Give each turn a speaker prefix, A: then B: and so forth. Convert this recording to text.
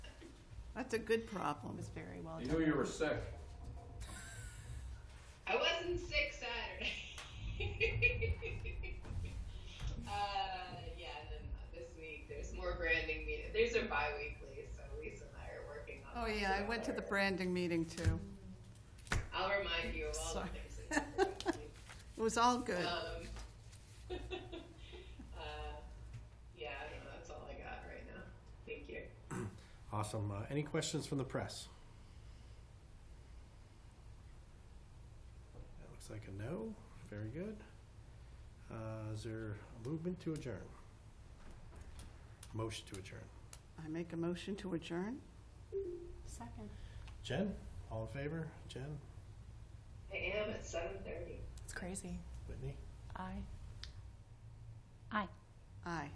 A: That's a good problem.
B: was very well
C: You
B: done.
C: knew you were sick.
D: I wasn't sick Saturday. uh, yeah, and then this week there's more branding meeting. There's a bi-weekly, so Lisa and I are working on
A: Oh,
D: that
A: yeah, I went to the
D: together.
A: branding meeting too.
D: I'll remind you of all
A: Sorry.
D: the things that you
A: It was all good.
D: Um, uh, yeah, I don't know. That's all I got right now. Thank you.
E: Awesome. Uh, any questions from the press? That looks like a no. Very good. Uh, is there a movement to adjourn? Motion to adjourn.
A: I make a motion to adjourn?
B: Second.
E: Jen, all in favor? Jen,
D: I am at 7.30.
B: It's crazy.
E: Whitney?
B: I.
A: Aye.